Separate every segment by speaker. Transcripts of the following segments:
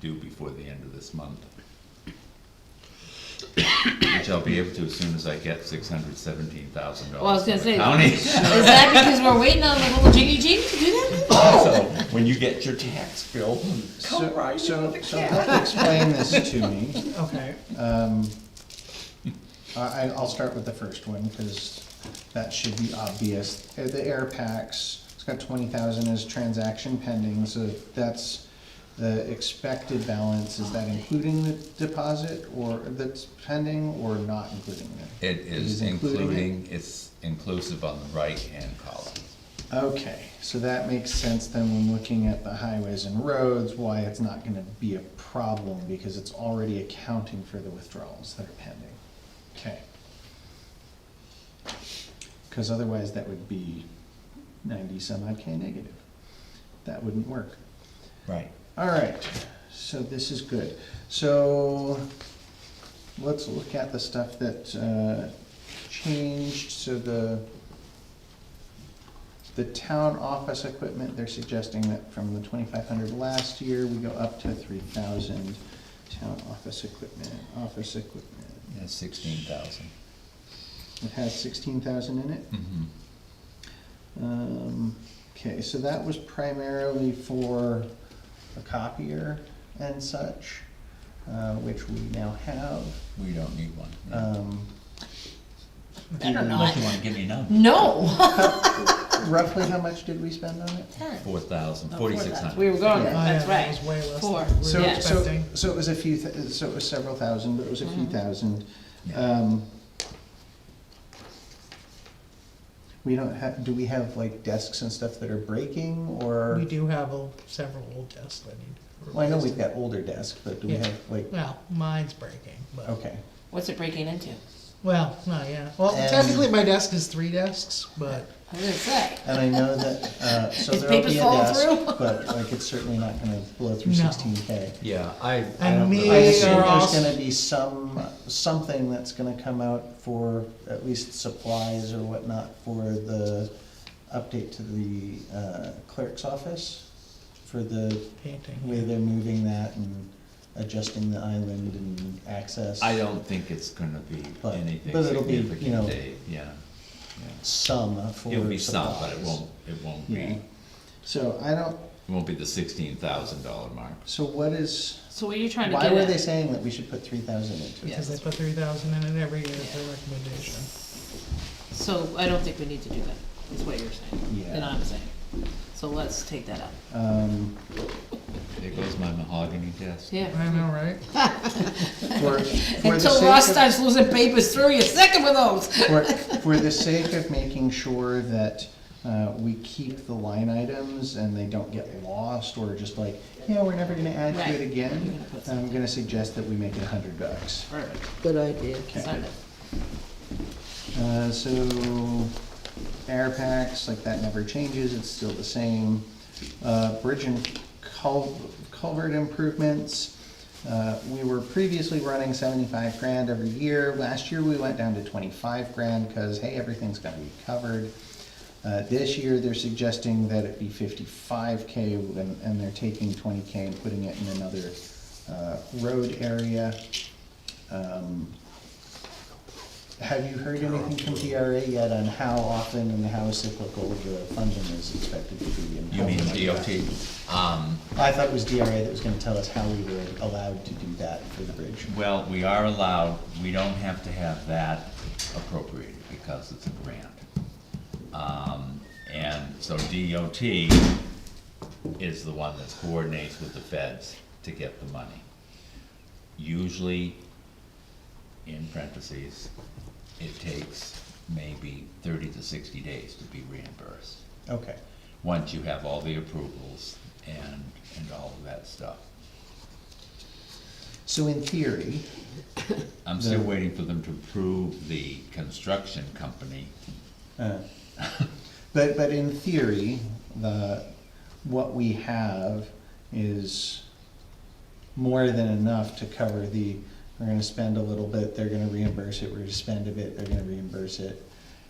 Speaker 1: due before the end of this month. Which I'll be able to as soon as I get six hundred seventeen thousand
Speaker 2: Well, I was
Speaker 1: dollars
Speaker 2: gonna
Speaker 1: from the
Speaker 2: say-
Speaker 1: county.
Speaker 2: Is that because we're waiting on the little jiggy jig to do that?
Speaker 1: So, when you get your tax bill,
Speaker 3: So,
Speaker 1: come right in
Speaker 3: so,
Speaker 1: with the
Speaker 3: so
Speaker 1: cash.
Speaker 3: help explain this to me.
Speaker 4: Okay,
Speaker 3: Um, I, I- I'll start with the first one, because that should be obvious. Uh, The air packs, it's got twenty thousand as transaction pending, so that's the expected balance. Is that including the deposit, or that's pending, or not including it?
Speaker 1: It is
Speaker 3: It is including it?
Speaker 1: including, it's inclusive on the right-hand column.
Speaker 3: Okay, so that makes sense then when looking at the highways and roads, why it's not gonna be a problem, because it's already accounting for the withdrawals that are pending. Okay. Cause otherwise that would be ninety some odd K negative. That wouldn't work.
Speaker 1: Right.
Speaker 3: All right, so this is good. So let's look at the stuff that uh, changed. So the, the town office equipment, they're suggesting that from the twenty-five hundred last year, we go up to three thousand. Town office equipment, office equipment.
Speaker 1: That's sixteen thousand.
Speaker 3: It has sixteen thousand in it?
Speaker 1: Mm-hmm.
Speaker 3: Um, okay, so that was primarily for a copier and such, uh, which we now have.
Speaker 1: We don't need one.
Speaker 3: Um,
Speaker 2: Better
Speaker 1: Unless
Speaker 2: not.
Speaker 1: you wanna give me a number.
Speaker 2: No.
Speaker 3: roughly how much did we spend on it?
Speaker 1: Four thousand,
Speaker 2: No,
Speaker 1: forty-six
Speaker 2: 4,000. We
Speaker 1: hundred.
Speaker 2: were going,
Speaker 3: Yeah.
Speaker 4: I, uh,
Speaker 2: that's
Speaker 4: that was
Speaker 2: right.
Speaker 4: way less
Speaker 2: Four.
Speaker 4: than we
Speaker 3: So,
Speaker 4: were
Speaker 2: Yeah.
Speaker 3: so,
Speaker 4: expecting.
Speaker 3: so it was a few, th- so it was several thousand, but it was a few thousand.
Speaker 1: Yeah.
Speaker 3: Um, we don't have, do we have like desks and stuff that are breaking or?
Speaker 4: We do have a- several old desks that need. to be
Speaker 3: Well, I know we've
Speaker 4: replaced.
Speaker 3: got older desks, but do we
Speaker 4: Yeah.
Speaker 3: have like,
Speaker 4: Well, mine's breaking, but,
Speaker 3: okay.
Speaker 2: What's it breaking into?
Speaker 4: well, no, yeah, well,
Speaker 3: And-
Speaker 4: technically my desk is three desks, but,
Speaker 2: I was gonna say.
Speaker 3: And I know that, uh, so
Speaker 2: Is
Speaker 3: there'll
Speaker 2: papers
Speaker 3: be a
Speaker 2: falling
Speaker 3: desk,
Speaker 2: through?
Speaker 3: but like it's certainly not gonna blow through
Speaker 4: No.
Speaker 3: sixteen K.
Speaker 5: Yeah, I, I
Speaker 4: And
Speaker 5: don't
Speaker 4: me-
Speaker 3: I
Speaker 5: know.
Speaker 3: assume
Speaker 4: are
Speaker 3: there's
Speaker 4: also-
Speaker 3: gonna be some, something that's gonna come out for at least supplies or whatnot for the update to the uh, clerk's office, for the way
Speaker 4: painting.
Speaker 3: they're moving that and adjusting the island and access.
Speaker 1: I don't think it's gonna be
Speaker 3: But-
Speaker 1: anything
Speaker 3: but it'll be, you know-
Speaker 1: significant, Dave, yeah. yeah.
Speaker 3: Some for
Speaker 1: It'll be some, but it
Speaker 3: supplies.
Speaker 1: won't, it won't be,
Speaker 3: Yeah.
Speaker 1: it
Speaker 3: So I don't,
Speaker 1: won't be the sixteen thousand dollar mark.
Speaker 3: so what is?
Speaker 2: So what are you trying to
Speaker 3: Why were
Speaker 2: get
Speaker 3: they
Speaker 2: at?
Speaker 3: saying that we should put three thousand into it?
Speaker 4: Because they put three thousand in it every year as their recommendation.
Speaker 2: So I don't think we need to do that, is what you're saying,
Speaker 3: Yeah.
Speaker 2: and I'm saying. So let's take that out.
Speaker 3: Um,
Speaker 1: There goes my mahogany desk.
Speaker 2: Yeah.
Speaker 4: I know, right?
Speaker 3: for, for the
Speaker 2: Until Ross
Speaker 3: sake
Speaker 2: starts losing papers through, you're second with those.
Speaker 3: of, for, for the sake of making sure that, uh, we keep the line items and they don't get lost or just like, yeah, we're never gonna add to
Speaker 2: Right.
Speaker 3: it again,
Speaker 2: gonna put
Speaker 3: I'm gonna suggest that we make it a hundred bucks.
Speaker 2: Perfect.
Speaker 4: Good idea.
Speaker 2: Sign it.
Speaker 3: Uh, so, air packs, like that never changes, it's still the same. Uh, bridge and cul- culvert improvements, uh, we were previously running seventy-five grand every year. Last year, we went down to twenty-five grand, cause hey, everything's gonna be covered. Uh, this year, they're suggesting that it be fifty-five K, and, and they're taking twenty K and putting it in another, uh, road area. Um, have you heard anything from DRA yet on how often and how cyclical the funding is expected to be? and
Speaker 1: You
Speaker 3: how
Speaker 1: mean
Speaker 3: much of
Speaker 1: DOT?
Speaker 3: that?
Speaker 1: Um,
Speaker 3: I thought it was DRA that was gonna tell us how we were allowed to do that for the bridge.
Speaker 1: well, we are allowed, we don't have to have that appropriated because it's a grant. Um, and so DOT is the one that coordinates with the feds to get the money. Usually, in parentheses, it takes maybe thirty to sixty days to be reimbursed.
Speaker 3: Okay,
Speaker 1: once you have all the approvals and, and all of that stuff.
Speaker 3: so in theory,
Speaker 1: I'm still
Speaker 3: Yeah.
Speaker 1: waiting for them to approve the construction company.
Speaker 3: uh, but, but in theory, the, what we have is more than enough to cover the, we're gonna spend a little bit, they're gonna reimburse it, we're gonna spend a bit, they're gonna reimburse it.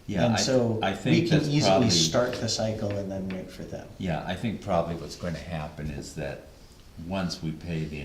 Speaker 1: Yeah, I-
Speaker 3: And so,
Speaker 1: I
Speaker 3: we
Speaker 1: think
Speaker 3: can
Speaker 1: that's
Speaker 3: easily
Speaker 1: probably-
Speaker 3: start the cycle and then wait for them.
Speaker 1: Yeah, I think probably what's gonna happen is that once we pay the